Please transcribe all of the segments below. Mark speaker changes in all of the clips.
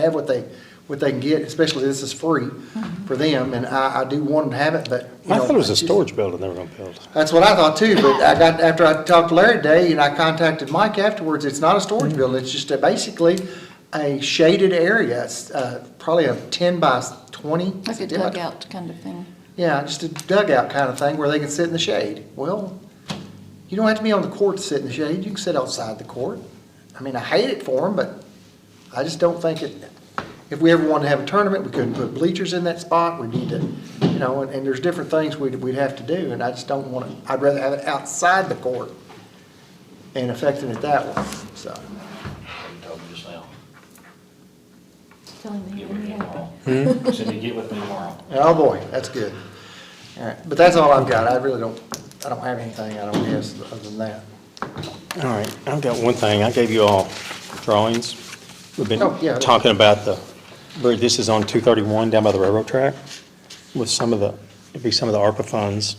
Speaker 1: have what they, what they can get, especially this is free for them, and I, I do want them to have it, but, you
Speaker 2: I
Speaker 1: know.
Speaker 2: thought it was a
Speaker 1: it's just-
Speaker 2: storage building they were gonna build.
Speaker 1: That's what I thought too, but I got, after I talked to Larry today, and I contacted Mike afterwards, it's not a
Speaker 2: Mm-hmm.
Speaker 1: storage building, it's just a, basically a shaded area, it's, uh, probably a ten by twenty.
Speaker 3: Like a
Speaker 1: 10 by 20.
Speaker 3: dugout kind of thing.
Speaker 1: Yeah, just a dugout kind of thing where they can sit in the shade. Well, you don't have to be on the court to sit in the shade. You can sit outside the court. I mean, I hate it for them, but I just don't think it, if we ever wanted to have a tournament, we couldn't put bleachers in that spot. We need to, you know, and, and there's different things we'd, we'd have to do, and I just don't want to, I'd rather have it outside the court and affecting it that way, so.
Speaker 4: You told me just now.
Speaker 3: Telling
Speaker 4: Get
Speaker 3: me
Speaker 4: with me
Speaker 3: when you have
Speaker 4: tomorrow. Cindy, get with me tomorrow.
Speaker 1: Oh, boy, that's good. All right, but that's all I've got. I really don't, I don't have anything, I don't guess, other than that.
Speaker 2: All right, I've got one thing. I gave you all drawings. We've
Speaker 1: Oh, yeah.
Speaker 2: been talking about the, where this is on 231 down by the railroad track with some of the, it'd be some of the ARPA funds.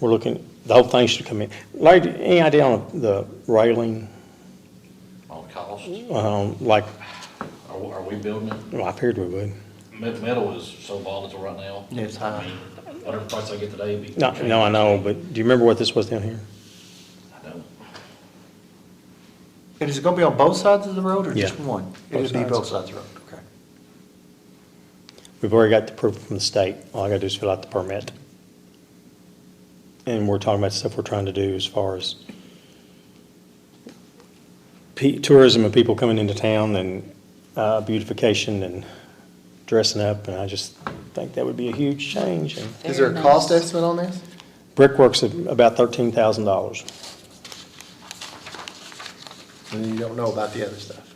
Speaker 2: We're looking, the whole thing should come in. Larry, any idea on the railing,
Speaker 4: On cost,
Speaker 2: um, like,
Speaker 4: are, we- are we building it?
Speaker 2: well, I figured we would.
Speaker 4: Me- Metal is so volatile right now.
Speaker 1: Yeah, it's high.
Speaker 4: I mean, Whatever price I get today be.
Speaker 2: No, no, I know, but do you remember what this was down here?
Speaker 4: I don't.
Speaker 1: And is it gonna be on both sides of the road or just
Speaker 2: Yeah.
Speaker 1: one?
Speaker 2: Both
Speaker 1: It'll be
Speaker 2: sides.
Speaker 1: both sides of the road, okay.
Speaker 2: We've already got the proof from the state. All I gotta do is fill out the permit. And we're talking about stuff we're trying to do as far as pe- tourism and people coming into town and uh, beautification and dressing up. And I just think that would be a huge change. And
Speaker 1: Is there a cost estimate on this?
Speaker 2: Brickwork's at about thirteen thousand dollars.
Speaker 1: And you don't know about the other stuff.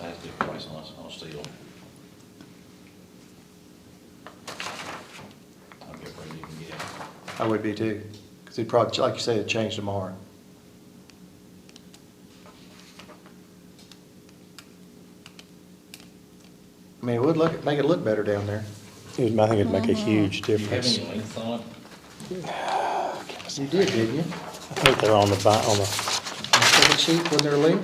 Speaker 4: I have to get a price on, s- on steel. I'll get where you can get.
Speaker 1: I would be too, because it'd probably, like you say, it'd change tomorrow. I mean, it would look, make it look better down there.
Speaker 2: I think it'd make a huge
Speaker 4: Do you have
Speaker 2: difference.
Speaker 4: any length on it?
Speaker 1: You did, didn't you?
Speaker 2: I think they're on the, bi- on the,
Speaker 1: On the sheet when they're leaving?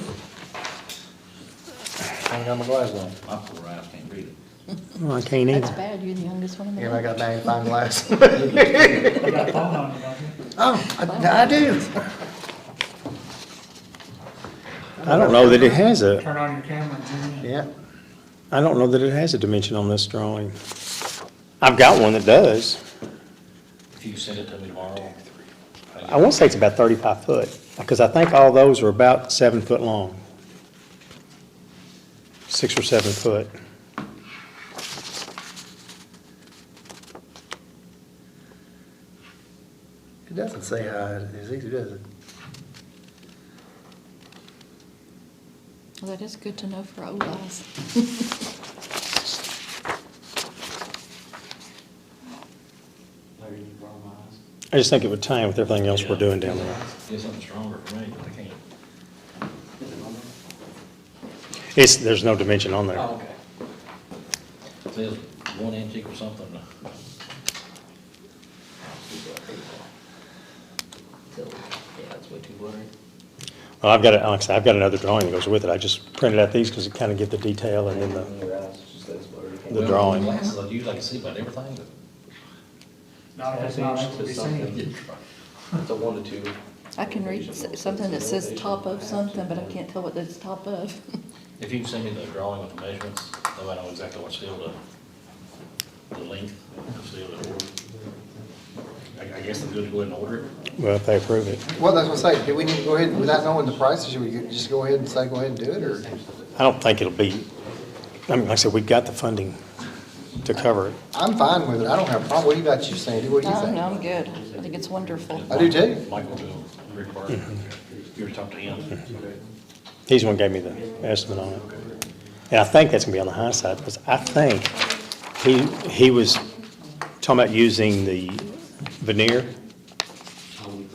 Speaker 1: I ain't got my glasses on.
Speaker 4: My poor eyes can't read it.
Speaker 2: Oh, I can't
Speaker 3: That's
Speaker 2: either.
Speaker 3: bad, you're the youngest one in the
Speaker 1: Yeah, I
Speaker 3: room.
Speaker 1: got magnifying glass.
Speaker 5: You got a phone on you, don't you?
Speaker 1: Oh, I I do.
Speaker 2: I don't know that it has a,
Speaker 5: Turn on your camera and zoom in.
Speaker 1: Yeah.
Speaker 2: I don't know that it has a dimension on this drawing. I've got one that does.
Speaker 4: If you send it to me tomorrow. I'll
Speaker 2: I want to say it's about 35 foot, because I think all those are about seven foot long. Six or seven foot.
Speaker 1: It doesn't say how it is either, does it?
Speaker 3: Well, That is good to know for old eyes.
Speaker 5: Larry, you borrow my eyes.
Speaker 2: I just think it would tie in with everything else we're doing down there.
Speaker 4: Get something stronger for me, but I can't.
Speaker 2: It's, there's no dimension on there.
Speaker 4: okay. Says one inch equals something.
Speaker 6: So, yeah, it's way too blurry.
Speaker 2: Well, I've got, it- like I said, I've got another drawing that goes with it. I just printed out these because it kind of give the detail and then the,
Speaker 6: Your eyes, it's just that's blurry.
Speaker 2: The drawing.
Speaker 4: Glasses, I usually can see about everything,
Speaker 5: Not if it's not able to be seen.
Speaker 6: It's a one to two.
Speaker 3: I can read s- something that says top of something, but I can't tell what it's top of.
Speaker 4: if you send me the drawing with the measurements, though I know exactly what steel to, the length of steel to order. I, I guess I'm good to go ahead and order it.
Speaker 2: well, if they approve it.
Speaker 1: Well, that's what I'm saying, do we need to go ahead, without knowing the prices, should we just go ahead and say, go ahead and do it, or?
Speaker 2: I don't think it'll be, I mean, like I said, we've got the funding to cover it.
Speaker 1: I'm fine with it, I don't have a problem, what about you, Sandy, what do you
Speaker 3: No, no,
Speaker 1: think?
Speaker 3: I'm good. I think it's wonderful.
Speaker 1: I do too.
Speaker 4: Michael to Rick Barton, you were talking to him.
Speaker 2: He's the one who gave me the estimate on it. And I think that's gonna be on the high side, because I think he, he was talking about using the veneer.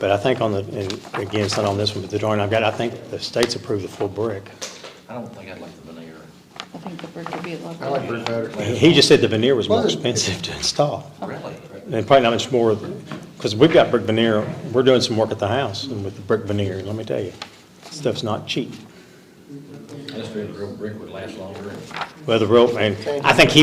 Speaker 2: But I think on the, and again, it's not on this one, but the drawing I've got, I think the state's approved the full brick.
Speaker 4: I don't think I'd like the veneer.
Speaker 3: I think the brick would be a lot
Speaker 1: I like
Speaker 3: better.
Speaker 1: brick better.
Speaker 2: He he just said the veneer was more expensive to install.
Speaker 4: Really?
Speaker 2: And probably not much more, because we've got brick veneer, we're doing some work at the house and with the brick veneer, and let me tell you, stuff's not cheap.
Speaker 4: I just figured real brick would last longer and
Speaker 2: Well, the rope, man, I think he